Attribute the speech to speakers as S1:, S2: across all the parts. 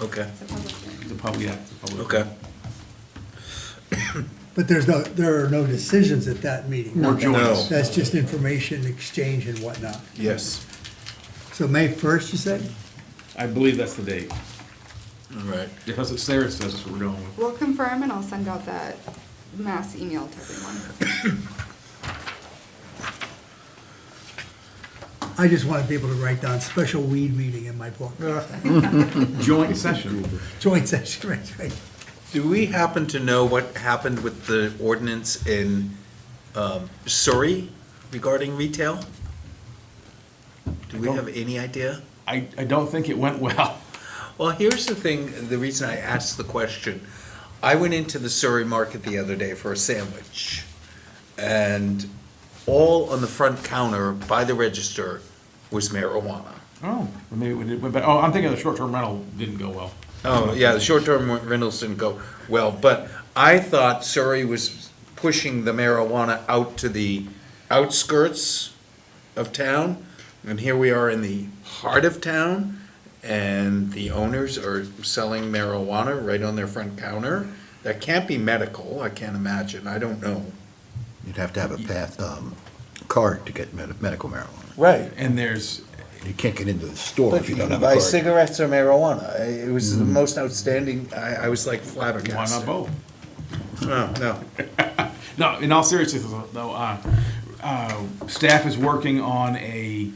S1: Okay,
S2: It's a public hearing.
S3: The public, yeah, the public.
S1: okay.
S4: But there's no, there are no decisions at that meeting.
S3: Or joints.
S4: That's just information exchange and whatnot.
S1: Yes,
S4: So May first, you said?
S3: I believe that's the date.
S1: all right.
S3: Yeah, that's what Sarah says, that's what we're going with.
S2: We'll confirm and I'll send out that mass email to everyone.
S4: I just wanted people to write down special weed meeting in my book.
S3: Joint session.
S4: Joint session, right, right.
S1: Do we happen to know what happened with the ordinance in um, Surrey regarding retail? Do we
S3: I don't-
S1: have any idea?
S3: I, I don't think it went well.
S1: Well, here's the thing, the reason I asked the question. I went into the Surrey Market the other day for a sandwich, and all on the front counter by the register was marijuana.
S3: Oh, well, maybe it went, but, oh, I'm thinking the short-term rental didn't go well.
S1: Oh, yeah, the short-term rentals didn't go well, but I thought Surrey was pushing the marijuana out to the outskirts of town, and here we are in the heart of town, and the owners are selling marijuana right on their front counter. That can't be medical, I can't imagine, I don't know.
S5: You'd have to have a path, um, card to get med- medical marijuana.
S1: Right.
S3: And there's,
S5: You can't get into the store
S1: But
S5: if you
S1: you
S5: don't
S1: can
S5: have a
S1: buy
S5: card. Mm-hmm.
S1: cigarettes or marijuana, I- it was the most outstanding, I, I was like
S3: why
S1: flabbergasted.
S3: not both?
S1: No, no.
S3: No, in all seriousness, though, uh, uh, staff is working on a,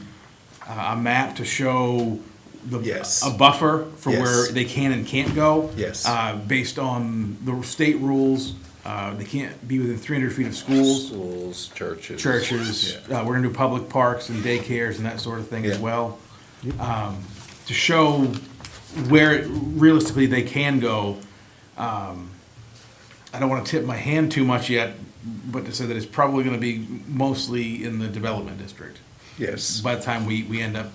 S3: uh, a map to show the,
S1: Yes.
S3: a buffer for where
S1: Yes.
S3: they can and can't go.
S1: Yes.
S3: Uh, based on the state rules, uh, they can't be within three hundred feet of schools,
S1: Schools, churches.
S3: churches,
S1: Yeah.
S3: uh, we're gonna do public parks and daycares and that sort of thing as
S1: Yeah.
S3: well. Um, to show where realistically they can go. um, I don't want to tip my hand too much yet, but to say that it's probably going to be mostly in the development district.
S1: Yes.
S3: By the time we, we end up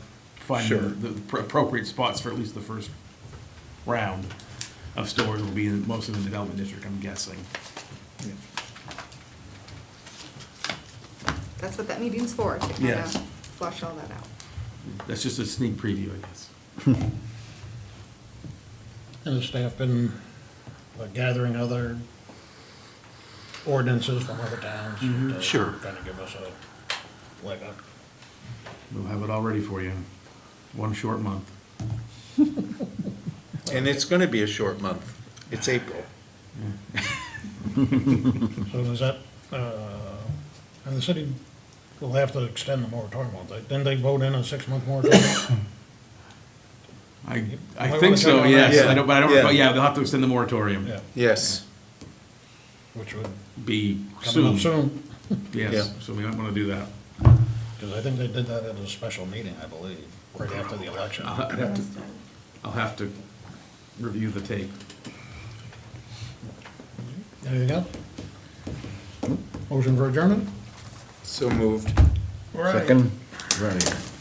S1: Sure.
S3: finding the the pr- appropriate spots for at least the first round of stores will be in, mostly in the development district, I'm guessing.
S2: That's what that meeting's for, to kind of
S3: Yes.
S2: flush all that out.
S3: That's just a sneak preview, I guess.
S6: And the staff been uh, gathering other ordinances from other towns? to
S3: Mm-hmm, sure.
S6: Kind of give us a, like a,
S3: We'll have it all ready for you. One short month.
S1: And it's gonna be a short month. It's April.
S6: so is that, uh, and the city will have to extend the moratorium, won't they? Didn't they vote in a six-month moratorium?
S3: I,
S6: might
S3: I
S6: wanna
S3: think
S6: check
S3: so,
S6: on that.
S3: yes.
S1: Yeah.
S3: I don't, but I don't,
S1: Yeah.
S3: recall- yeah, they'll have to extend the moratorium.
S6: Yeah,
S1: Yes.
S6: which would
S3: Be
S6: come up
S3: soon,
S6: soon,
S3: yes.
S1: Yeah.
S3: So we might want to do that.
S6: because I think they did that at a special meeting, I believe, right after the election.
S3: I'll have to, I'll have to review the tape.
S6: Anything else? Motion for adjournment?
S1: So moved.
S6: All right.
S5: Second, right here.